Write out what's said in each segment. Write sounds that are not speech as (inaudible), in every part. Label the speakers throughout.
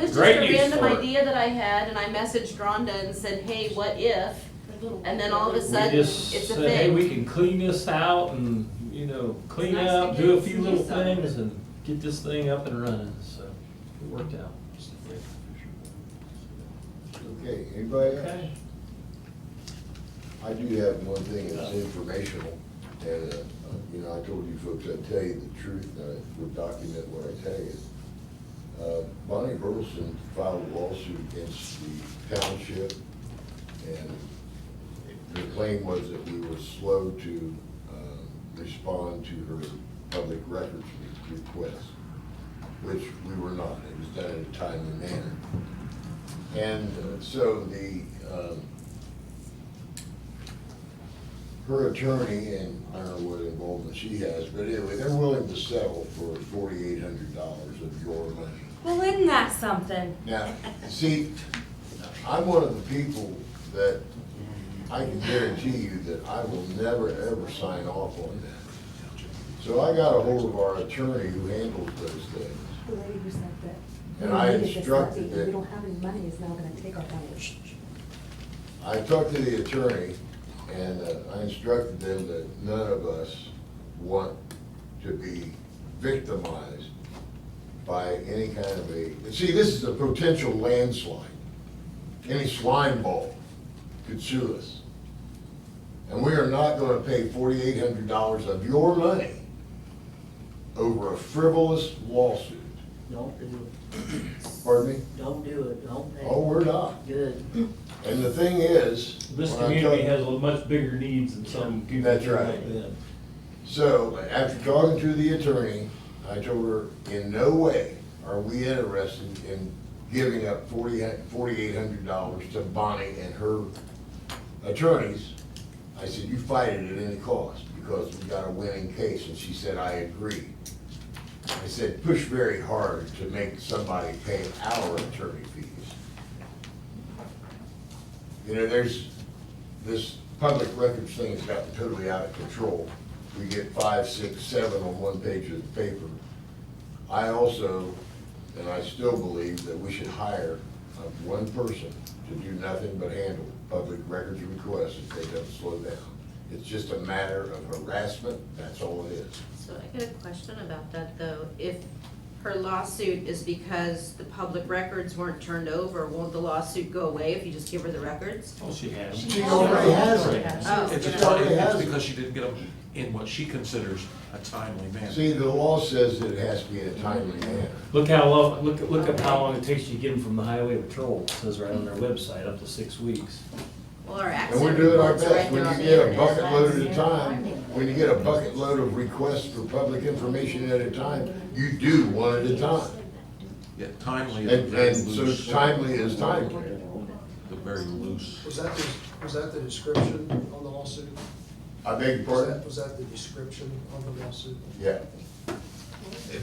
Speaker 1: was just
Speaker 2: Great
Speaker 1: a
Speaker 2: use
Speaker 1: random
Speaker 2: for it.
Speaker 1: idea that I had, and I messaged Rhonda and said, hey, what if? And then all of a
Speaker 2: We
Speaker 1: sudden,
Speaker 2: just
Speaker 1: it's a
Speaker 2: said, hey, we
Speaker 1: thing.
Speaker 2: can clean this out and, you know, clean
Speaker 3: nice to
Speaker 2: up, do a
Speaker 3: get
Speaker 2: few
Speaker 3: some
Speaker 2: little
Speaker 3: use out of
Speaker 2: things
Speaker 3: it.
Speaker 2: and get this thing up and running, so it worked out.
Speaker 4: Okay, anybody else?
Speaker 2: Okay.
Speaker 4: I do have one thing, it's informational, and, uh, you know, I told you folks I'd tell you the truth, and I would document what I tell you. Uh, Bonnie Burleson filed a lawsuit against the township, and the claim was that we were slow to, um, respond to her public records re- request, which we were not, it was done in a timely manner. And uh, so the, um, her attorney, and I don't know what involvement she has, but anyway, they're willing to settle for forty-eight hundred dollars of your money.
Speaker 5: Well, isn't that something?
Speaker 4: Now, see, I'm one of the people that, I can guarantee you that I will never, ever sign off on that. So I got a hold of our attorney who handles those things.
Speaker 6: The lady who said that.
Speaker 4: And
Speaker 6: we
Speaker 4: I
Speaker 6: needed this update,
Speaker 4: instructed that-
Speaker 6: and We don't have any money, is now gonna take our money.
Speaker 4: I talked to the attorney, and uh, I instructed them that none of us want to be victimized by any kind of a, and see, this is a potential landslide. Any slime ball could sue us. And we are not gonna pay forty-eight hundred dollars of your money over a frivolous lawsuit.
Speaker 7: Don't do it,
Speaker 4: Pardon me?
Speaker 7: don't do it, don't pay.
Speaker 4: Oh, we're not.
Speaker 7: Good.
Speaker 4: And the thing is.
Speaker 2: This
Speaker 4: when I
Speaker 2: community
Speaker 4: talk-
Speaker 2: has a much bigger needs than some
Speaker 4: That's
Speaker 2: communities
Speaker 4: right.
Speaker 2: like them.
Speaker 4: So, after talking to the attorney, I told her, in no way are we interested in giving up forty, forty-eight hundred dollars to Bonnie and her attorneys. I said, you fight it at any cost, because we got a winning case, and she said, I agree. I said, push very hard to make somebody pay our attorney fees. You know, there's, this public records thing has gotten totally out of control. We get five, six, seven on one page of the paper. I also, and I still believe that we should hire uh, one person to do nothing but handle public records requests if they don't slow down. It's just a matter of harassment, that's all it is.
Speaker 1: So I got a question about that, though. If her lawsuit is because the public records weren't turned over, won't the lawsuit go away if you just give her the records?
Speaker 2: Oh, she has.
Speaker 4: She already has it.
Speaker 1: Oh.
Speaker 8: It's just,
Speaker 4: Sorry, it
Speaker 8: it's
Speaker 4: hasn't.
Speaker 8: because she didn't get them in what she considers a timely manner.
Speaker 4: See, the law says that it has to be in a timely manner.
Speaker 2: Look how long, look, look up how long it takes you to get them from the highway patrol, It says right on their website, up to six weeks.
Speaker 1: Well, our
Speaker 4: And we're
Speaker 1: accident
Speaker 4: doing our
Speaker 1: reports are
Speaker 4: best,
Speaker 1: right
Speaker 4: when
Speaker 1: there on
Speaker 4: you
Speaker 1: the
Speaker 4: get a
Speaker 1: internet.
Speaker 4: bucket load at a time, when you get a bucket load of requests for public information at a time, you do one at a time.
Speaker 8: Yeah, timely is
Speaker 4: And,
Speaker 8: very
Speaker 4: and so
Speaker 8: loose,
Speaker 4: timely is timely.
Speaker 8: the very loose.
Speaker 9: Was that, the- was that the description on the lawsuit?
Speaker 4: I beg your
Speaker 9: Was
Speaker 4: pardon?
Speaker 9: that, was that the description on the lawsuit?
Speaker 4: Yeah.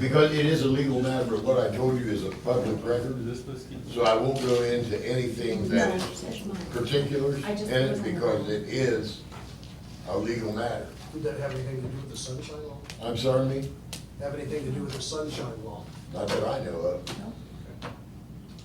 Speaker 4: Because it is a legal matter, but what I told you is a public record, so I won't go into anything that
Speaker 6: No,
Speaker 4: is
Speaker 6: that's mine.
Speaker 4: particulars
Speaker 6: I just-
Speaker 4: in it, because it is a legal matter.
Speaker 9: Did that have anything to do with the sunshine law?
Speaker 4: I'm sorry, me?
Speaker 9: Have anything to do with the sunshine law?
Speaker 4: Not that I know of.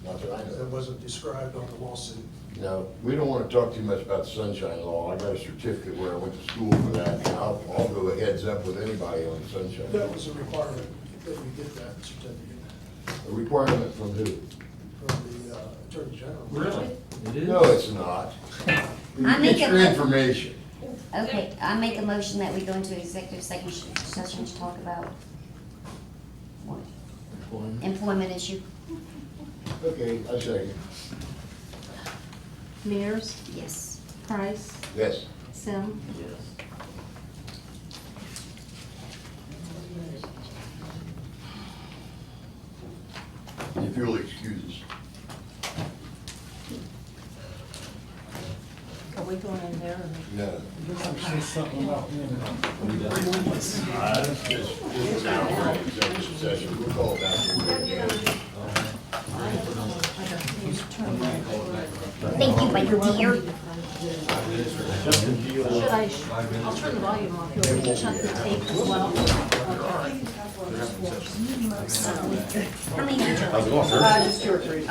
Speaker 4: Not that I know
Speaker 9: That
Speaker 4: of.
Speaker 9: wasn't described on the lawsuit.
Speaker 4: No, we don't want to talk too much about the sunshine law. I got a certificate where I went to school for that, and I'll, I'll go a heads up with anybody on sunshine.
Speaker 9: That was a requirement that we get that certificate
Speaker 4: A requirement from who?
Speaker 9: from the uh, Attorney General.
Speaker 2: Really? It is?
Speaker 4: No, it's
Speaker 2: (laughs)
Speaker 4: not.
Speaker 10: I
Speaker 4: Get
Speaker 10: make
Speaker 4: your
Speaker 10: it-
Speaker 4: information.
Speaker 10: Okay, I make a motion that we go into executive session, session to talk about what? Employment issue,
Speaker 4: Okay, I second.
Speaker 6: Mears,
Speaker 10: yes.
Speaker 6: Price,
Speaker 4: Yes.
Speaker 6: Sim.
Speaker 2: Yes.
Speaker 4: If you'll excuse us.
Speaker 5: Are we going in there or?
Speaker 4: No. This is now for executive session. We'll call it out.
Speaker 10: Thank you, my dear.
Speaker 5: Should I, I'll turn the volume off, you'll need to shut the tape as well.
Speaker 10: How many?
Speaker 8: How's it going, sir?
Speaker 4: 啊
Speaker 10: Uh, just two or three.